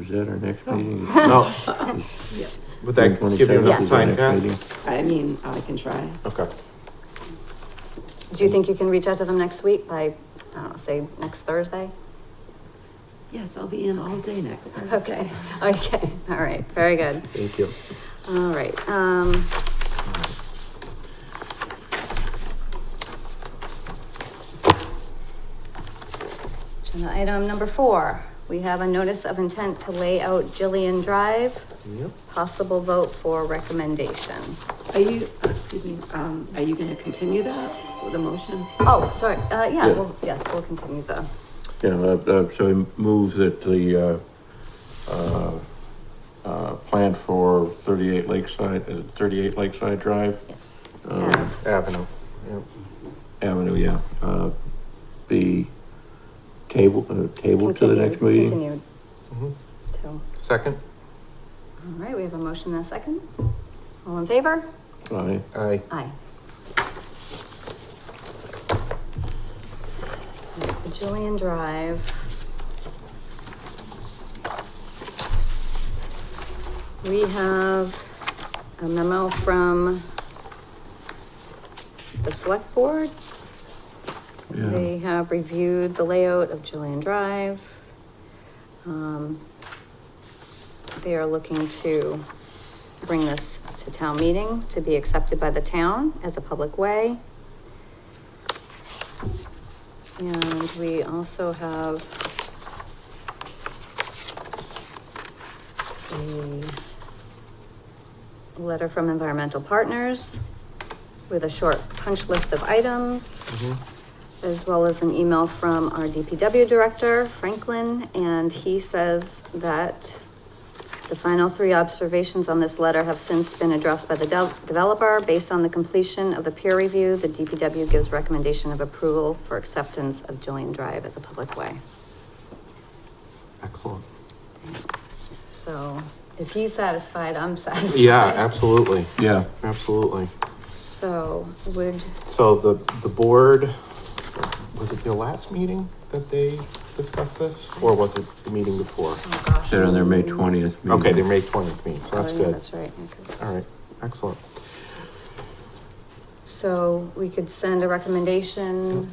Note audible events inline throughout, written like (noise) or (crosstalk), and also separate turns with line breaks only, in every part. Is that our next
(laughs)
meeting? No.
Would that give Oh. you
27th
enough
is the
time,
next
Kat?
meeting.
I mean, I can try.
Okay.
Do you think you can reach out to them next week by, I don't know, say next Thursday?
Yes, I'll be in all day next Thursday.
Okay, (laughs) okay, all right, very good.
Thank you.
All right, um, agenda item number four, we have a notice of intent to lay out Gillian Drive,
Yep.
possible vote for recommendation.
Are you, oh, excuse me, um, are you gonna continue that with a motion?
Oh, sorry, uh, yeah,
Yeah.
well, yes, we'll continue the,
Yeah, uh, uh, so we move that the, uh, uh, uh, plan for thirty-eight Lakeside, is it thirty-eight Lakeside Drive?
yes.
Um,
Yeah.
Avenue. Yep.
Avenue, yeah, uh, be table, uh, table to the next
Continued-
meeting?
Continued
Mhm.
to, all
Second?
right, we have a motion and a second. All in favor?
Aye.
Aye.
Aye. Julian Drive. We have a memo from the select board.
Yeah.
They have reviewed the layout of Julian Drive. Um, They are looking to bring this to town meeting to be accepted by the town as a public way. And we also have a letter from Environmental Partners with a short punch list of items
Mhm.
as well as an email from our DPW director, Franklin, and he says that the final three observations on this letter have since been addressed by the del- developer. Based on the completion of the peer review, the DPW gives recommendation of approval for acceptance of Julian Drive as a public way.
Excellent.
So if he's satisfied, I'm satisfied.
Yeah, absolutely.
Yeah,
Absolutely.
So would,
So the, the board, was it your last meeting that they discussed this? Or was it the meeting before?
oh gosh.
said on their May
mm,
twentieth meeting.
Okay, they May twentieth meeting, so
oh,
that's
yeah,
good.
That's right. yeah, 'cause-
All right, excellent.
So we could send a recommendation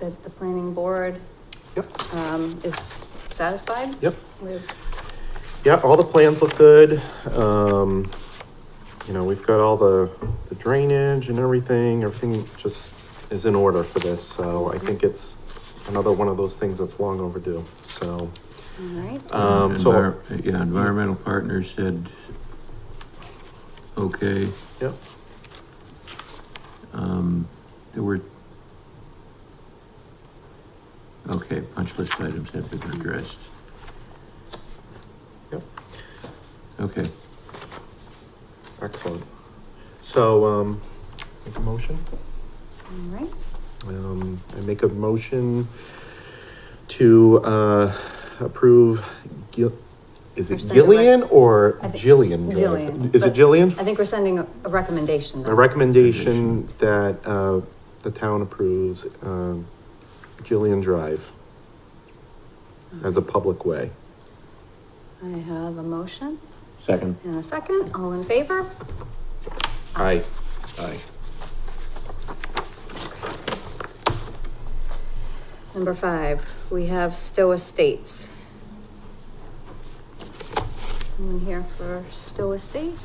that the planning board
Yep.
um, is satisfied
Yep.
with,
Yeah, all the plans look good. Um, you know, we've got all the, the drainage and everything, everything just is in order for this. So I think it's another one of those things that's long overdue, so.
all right?
Um, so,
Uh, Envir- Yeah, environmental partners said, okay.
Yep.
Um, there were. Okay, punch list items have been addressed.
Yep.
Okay,
excellent. So, um, make a motion?
All right,
Um, I make a motion to, uh, approve Gil, is
Or
it
send a rec-
Gillian or
I think-
Jillian?
Jillian,
Is it
but-
Jillian?
I think we're sending a a recommendation.
A recommendation that, uh, the town approves, um, Gillian Drive as a public way.
I have a motion
second.
and a second, all in favor?
Aye.
Aye.
Number five, we have Stowe Estates. Anyone here for Stowe Estates?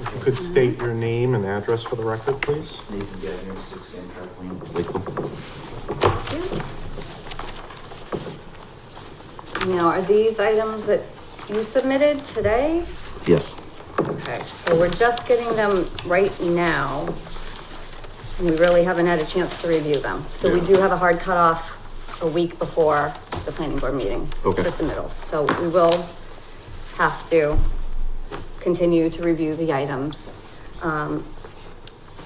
If you could state your name and address for the record, please.
Nathan Gettner, Six Amtrak Lane, Lakeville.
Now, are these items that you submitted today?
Yes.
Okay, so we're just getting them right now. And we really haven't had a chance to review them. So we
Yeah.
do have a hard cutoff a week before the planning board meeting.
Okay.
For submittals, so we will have to continue to review the items. Um,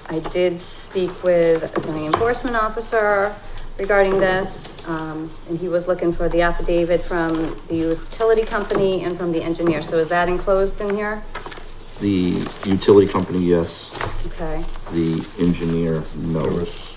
I did speak with a zoning enforcement officer regarding this, um, and he was looking for the affidavit from the utility company and from the engineer. So is that enclosed in here?
The utility company, yes.
Okay.
The engineer, no.